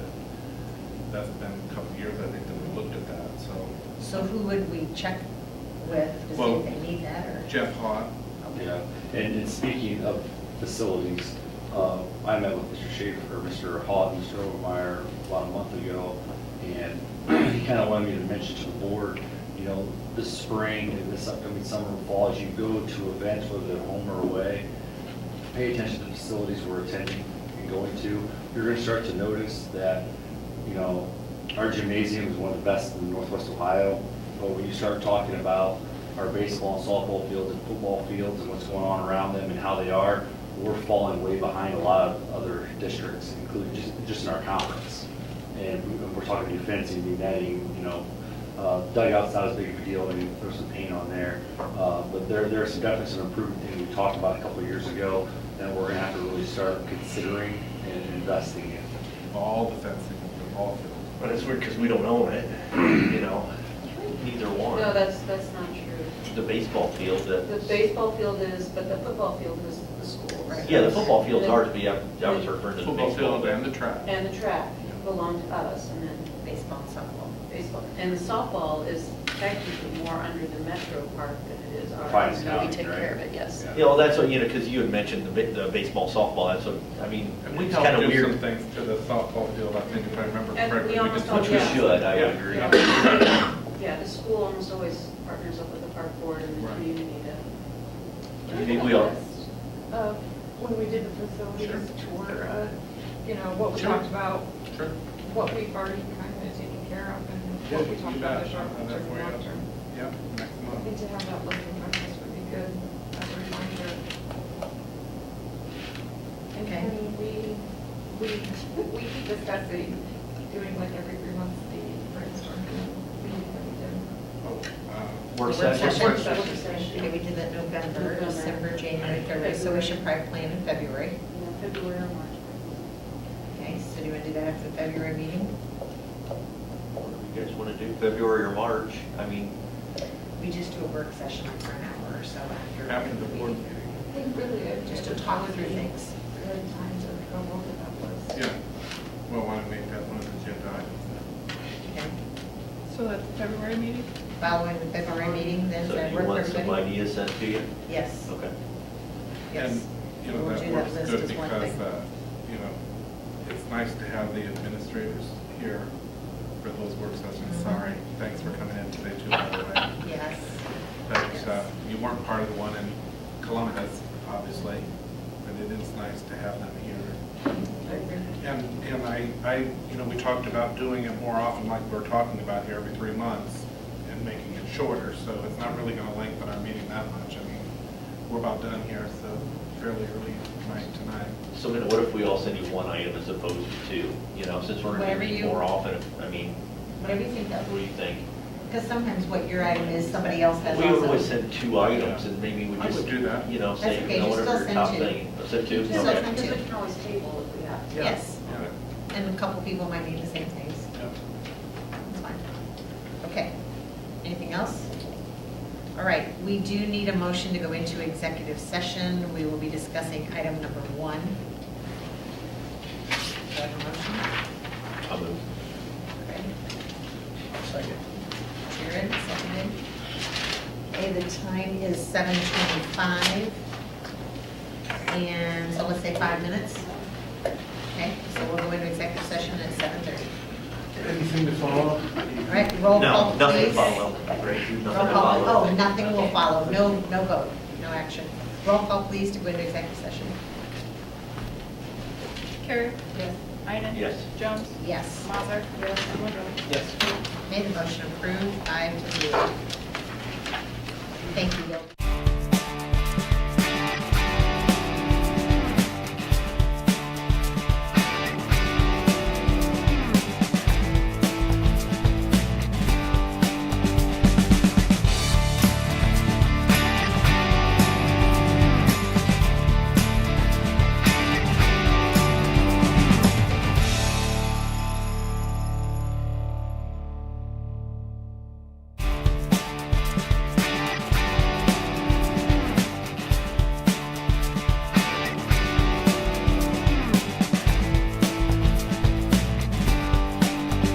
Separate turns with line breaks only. that's been a couple of years, I think, that we looked at that, so.
So who would we check with to see
Well-
if they need that, or?
Jeff Hott,
Yeah, and, and speaking of facilities, uh, I met with Mr. Schaefer, Mr. Hall, and Mr. Overmeyer about a month ago, and he kind of wanted me to mention to the board, you know, this spring, and this upcoming summer, and fall, as you go to events, whether they're home or away, pay attention to the facilities we're attending and going to. You're gonna start to notice that, you know, our gymnasium is one of the best in northwest Ohio, but when you start talking about our baseball and softball fields and football fields and what's going on around them and how they are, we're falling way behind a lot of other districts, including just, just in our conference. And we- we're talking new fencing, new netting, you know, uh, dugout's not as big of a deal, maybe throw some paint on there. Uh, But there, there are some definitely some improvement things we talked about a couple of years ago that we're gonna have to really start considering and investing in.
all the fencing of the ball field.
But it's weird because we don't own it, you know, neither one.
No, that's, that's not true.
The baseball field,
The
the,
baseball field is, but the football field is the school, right?
yeah, the football field's ours, but yeah, I was referring to the
Football
baseball.
field and the track.
And the track belong to us, and then
Baseball and softball.
baseball, and the softball is technically more under the metro park than it is ours.
Fines
No, we
County,
take
right?
care of it, yes.
Yeah.
You know, that's what, you know, because you had mentioned the ba- the baseball, softball, that's what, I mean,
And we
it's
helped
kind of
do some
weird.
things to the softball field, I think, if I remember
And we
correctly.
almost
just-
all-
Which we
Yeah.
should, I would
Oh, Yeah.
agree.
Yeah. Yeah, the school almost always partners up with the park board and the
Right.
community
I
to.
mean, we all-
of when we did the
Sure.
facilities tour, of, you know, what we
Sure.
talked about,
Sure.
what we've already kind of taken care of and
Yeah,
what we
you
talked about
bet.
the short,
I'll have that
term,
for you.
long term.
Yeah, next
I think
month.
to have that list in front of us would be good as a reminder. And
Okay.
then we, we, we keep discussing doing like every three months the brainstorming meeting that we did.
Oh, uh,
Work
Work
session.
session.
Work session.
Okay, we did that November,
November.
December, January, February, so we should probably plan in February.
Yeah, February or March.
Okay, so do you want to do that after the February meeting?
What do You guys want to do February or March? I mean,
We just do a work session like for an hour or so after.
After the board meeting.
I think really it
Just to talk through things.
Good time to go over that list.
Yeah, we'll want to make that one of the agenda items.
Okay.
So that's the February meeting?
Following the February meeting, then
so
that
you
work
want
for
some
everybody?
ideas sent to you?
Yes,
Okay.
yes.
And, you know,
We'll
that
do
works
list
good
as one
because,
thing.
uh, you know, it's nice to have the administrators here for those work sessions.
Mhm.
Sorry, thanks for coming in today too, by the way.
Yes,
But uh, you weren't part of the one in Columbus, obviously, but it is nice to have them here.
I agree.
And, and I, I, you know, we talked about doing it more often like we're talking about here every three months and making it shorter, so it's not really gonna lengthen our meeting that much. I mean, we're about done here, so fairly early night tonight.
So then what if we all send you one item as opposed to two? You know, since we're going
Whatever
to be
you-
more often, I mean,
Whatever you think
what
of.
do you think?
Because sometimes what your item is, somebody else has
We would always
also.
send two items and maybe we
I would
just,
do that.
you know,
That's
say,
okay,
you know,
just
whatever
still
your
send
top
two.
thing. Oh, Send two?
Just still
Okay.
send
Because we can always table if we have to.
Yes,
Yeah.
and a couple people might need the same things.
Yeah.
That's fine. Okay, anything else? All right, we do need a motion to go into executive session. We will be discussing item number one. Do I have a motion?
I'll move.
Okay. Sharon, seconded. Okay, the time is 7:25. And so let's say five minutes. Okay, so we'll go into executive session at 7:30.
Anything to follow up?
All right, roll call,
No,
please.
nothing to follow, right? Nothing to
Roll call,
follow.
oh, nothing will follow, no, no vote, no action. Roll call, please, to go into executive session.
Carrie?
Yes.
Iden?
Yes.
Jones?
Yes.
Mazer? Yes. And Woodruff?
Made the motion approved, five to zero. Thank you, Bill.